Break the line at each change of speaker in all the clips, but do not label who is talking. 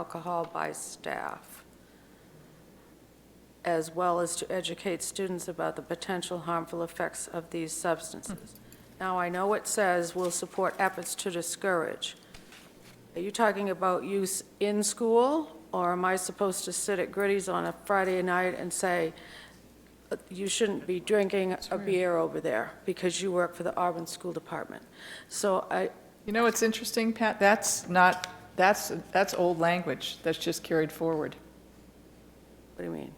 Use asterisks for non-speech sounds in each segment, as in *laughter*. alcohol by staff, as well as to educate students about the potential harmful effects of these substances. Now, I know it says will support efforts to discourage. Are you talking about use in school, or am I supposed to sit at Gritty's on a Friday night and say, you shouldn't be drinking a beer over there because you work for the Auburn School Department? So I,
You know what's interesting, Pat? That's not, that's, that's old language that's just carried forward.
what do you mean?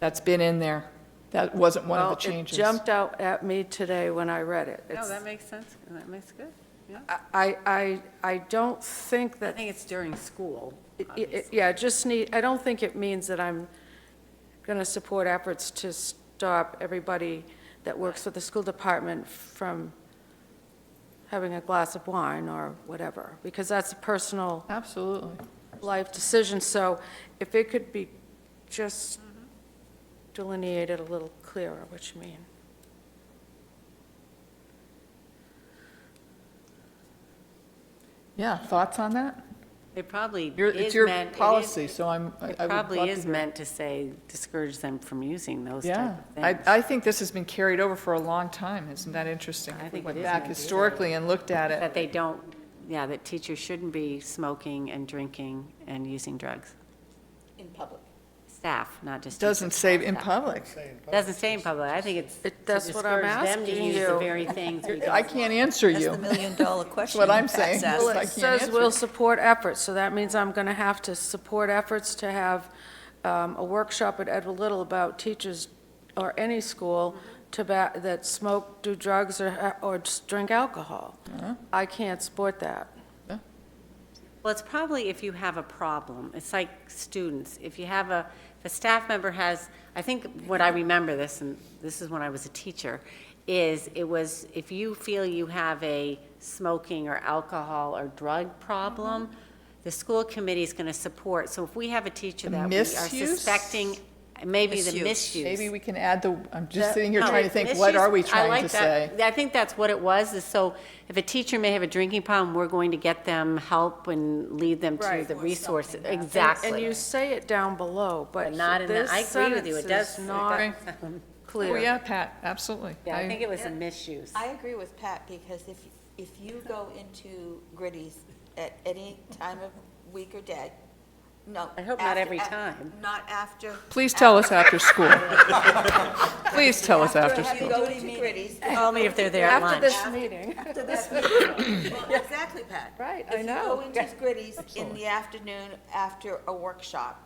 That's been in there. That wasn't one of the
Well, it
changes.
jumped out at me today when I read it.
No,
It's-
that makes sense, and that makes good, yeah.
I, I, I don't think
I
that,
think it's during school,
it- it-
obviously.
yeah, just need, I don't think it means that I'm going to support efforts to stop everybody that works for the school department from having a glass of wine or whatever, because that's a personal
Absolutely.
life decision. So if it could be just
Mm-hmm.
delineated a little clearer, what you mean.
Yeah, thoughts on that?
It probably
Your-
is
It's your
meant. it is-
policy, so I'm, I I would
It
love
probably
to
is
hear-
meant to say discourage them from using those
Yeah,
type of
I,
things.
I think this has been carried over for a long time. Isn't that interesting?
I
If
think
We
it
went
is
back
meant to be.
historically and looked at it.
That they don't, yeah, that teachers shouldn't be smoking and drinking and using drugs.
in public.
Staff, not just teachers.
Doesn't say in public.
Doesn't say in public, I think it's to
It- that's what I'm
discourage them to
asking
use the
you.
very things
*laughs*
we
I
don't.
can't answer
That's the
you. *laughs*
million-dollar question.
what I'm
Pat's
saying.
asked.
Well,
Well,
I
it
can't
says
answer
we will
it.
support efforts, so that means I'm going to have to support efforts to have um, a workshop at Edward Little about teachers or any school tobacco, that smoke, do drugs, or, or just drink alcohol. I can't support that.
Well, it's probably if you have a problem. It's like students. If you have a, if a staff member has, I think what I remember this, and this is when I was a teacher, is it was, if you feel you have a smoking or alcohol or drug problem,
Mm-hmm.
the school committee is going to support. So if we have a teacher that we are
Misuse?
suspecting, maybe the
Misuse.
misuse.
Maybe we can add the, I'm just
That-
sitting here
No,
trying to think, what
misuse-
are we
I
trying to
like
say?
that. I think that's what it was, is so if a teacher may have a drinking problem, we're going to get them help and lead them to
Right.
the resources.
And
Exactly.
you say it down below, but
But not in the-
this
I agree with
sentence
you, it
is
does- it *laughs*
not
Oh,
clear.
yeah, Pat, absolutely.
Yeah, I
I-
think it was a misuse.
I agree with Pat, because if, if you go into Gritty's at any time of week or day, no.
I hope not
after-
every
af-
time.
Not after.
Please tell us after school. Please tell us after
If you
school.
go to Gritty's.
*laughs* Call me if they're there at
After
lunch.
this meeting,
after this meeting.
*laughs*
Well, Exactly, Pat.
Right, I know.
If you go into Gritty's in the afternoon after a workshop,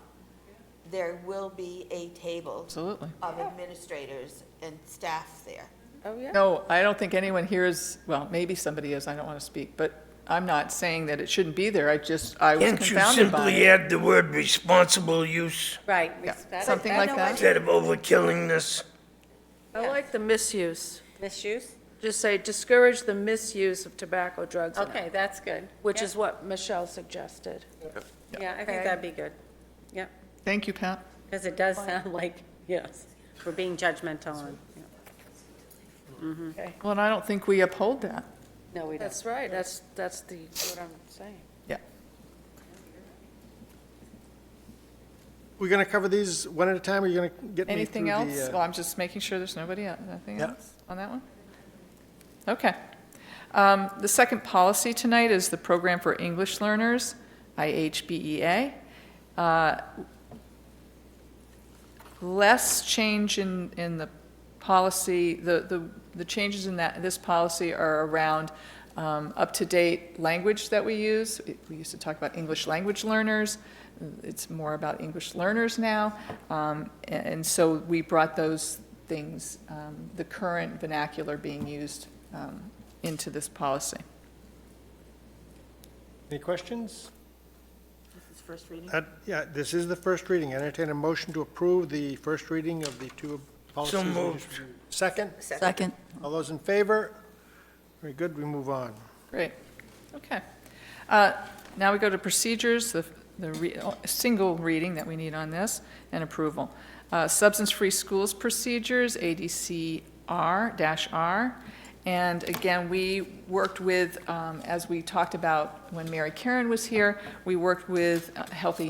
there will be a table
Absolutely.
of administrators and staff there.
oh, yeah.
No, I don't think anyone here is, well, maybe somebody is, I don't want to speak, but I'm not saying that it shouldn't be there, I just, I was
Can't you
confounded by
simply
it.
add the word responsible use
Right.
Something like that.
instead of overkilling this?
I like the misuse.
Misuse?
Just say discourage the misuse of tobacco, drugs, and
Okay, that's good.
which
Yeah.
is what Michelle suggested.
Yeah, I
Okay.
think that'd be good. Yeah,
Thank you, Pat.
because it does sound *laughs* like, yes, we're being judgmental on. yeah.
Well, and I don't think we uphold that.
No, we don't.
That's right, that's, that's the, what I'm saying.
Yeah.
We're going to cover these one at a time, or you're going to get me through
Anything
the,
else?
uh,
Well, I'm just making sure there's nobody, else. anything
Yeah.
else on that one? Okay. Um, The second policy tonight is the Program for English Learners, IHBEA. Uh, Less change in, in the policy, the, the, the changes in that, this policy are around um, up-to-date language that we use. It- We used to talk about English language learners, it's more about English learners now. Um, a- And so we brought those things, um, the current vernacular being used um, into this policy.
Any questions?
This is first reading.
Uh, Yeah, this is the first reading. I entertain a motion to approve the first reading of the two policies. we just
moved.
reviewed. Second?
Second.
All those in favor? Very good, we move on.
Great, okay. Uh, Now we go to procedures, the, the re- oh, single reading that we need on this, and approval. Uh, Substance-free schools procedures, ADCR-R, And again, we worked with, um, as we talked about when Mary Karen was here, we worked with uh, Healthy